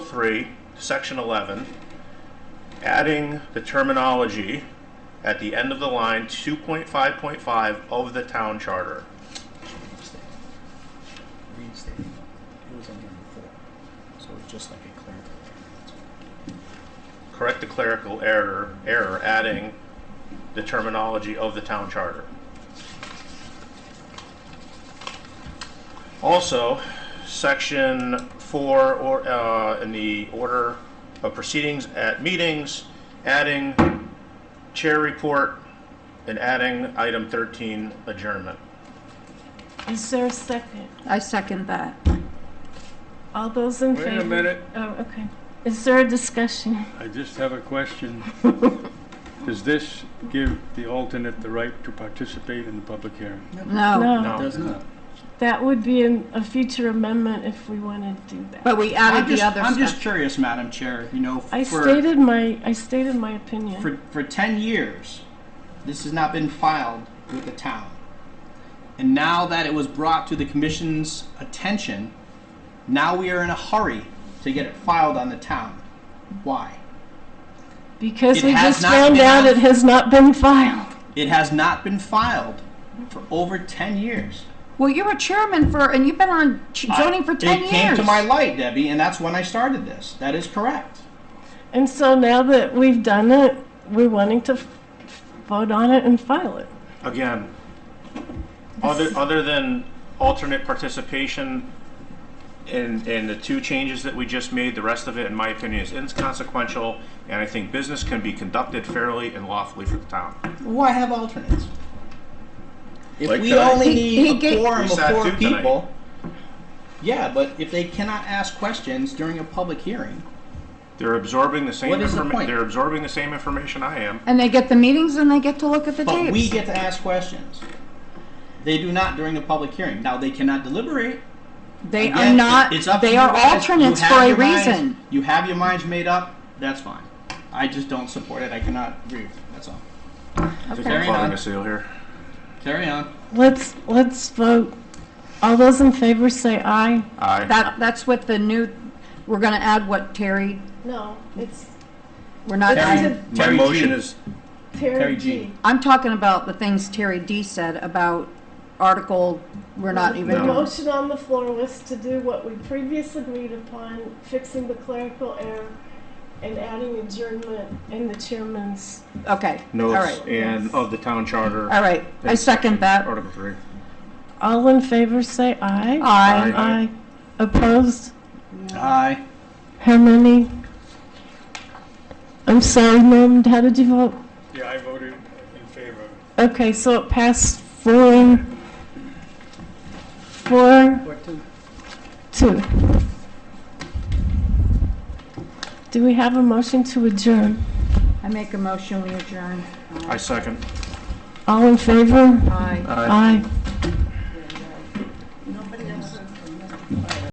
three, section eleven, adding the terminology at the end of the line, two point five point five of the town charter. reinstating. It was on here before, so it's just like a clarification. Correct the clerical error, error, adding the terminology of the town charter. Also, section four, or, uh, in the order of proceedings at meetings, adding chair report and adding item thirteen adjournment. Is there a second? I second that. All those in Wait a favor? minute. Oh, okay. Is there a discussion? I just have a question. Does this give the alternate the right to participate in the public hearing? No, No, No. Does not. that would be an- a future amendment if we wanted to do that. but we I'm added the just, other I'm just stuff. curious, Madam Chair, you know, I for, stated my, I stated my opinion. for, for ten years, this has not been filed with the town. And now that it was brought to the commission's attention, now we are in a hurry to get it filed on the town. Why? Because It we has just not found been out on- it has not been filed. It has not been filed for over ten years. Well, you were chairman for, and you've been on ch- zoning for I- 10 It years. came to my light, Debbie, and that's when I started this. That is correct. And so now that we've done it, we're wanting to f- vote on it and file it. Again, other, other than alternate participation and, and the two changes that we just made, the rest of it, in my opinion, is inconsequential, and I think business can be conducted fairly and lawfully for the town. Why have alternates? If Like we tonight. only He- need he a ga- quorum We of sat four two tonight. people. Yeah, but if they cannot ask questions during a public hearing, They're absorbing the same What is the informa- point? they're absorbing the same information I am. And they get the meetings and they get to look at the but we tapes. get to ask questions. They do not during a public hearing. Now they cannot deliberate. They are Again, not, It's up to they you are guys. You alternates have for a your minds- reason. You have your minds made up. That's fine. I just don't support it. I cannot agree with it. That's all. Okay. Carry Clogging on. a seal here. Carry on. Let's, let's vote. All those in favor say aye. Aye. That, that's what the new, we're gonna add what Terry, No, it's we're not Terry- adding. My Terry motion G. is, Terry Terry G. G. I'm talking about the things Terry D said about article, we're not even The No. doing. motion on the floor was to do what we previously agreed upon, fixing the clerical error and adding adjournment in the chairman's. Okay, all notes right, and of the town charter. all right. I second that. Article three. All in favor, say aye. Aye. Aye. Opposed? Aye. How many? I'm sorry, ma'am, how did you vote? Yeah, I voted in favor. Okay, so it passed four, four, Or two. two. Do we have a motion to adjourn? I make a motion, we adjourn. I second. All in favor? Aye. Aye.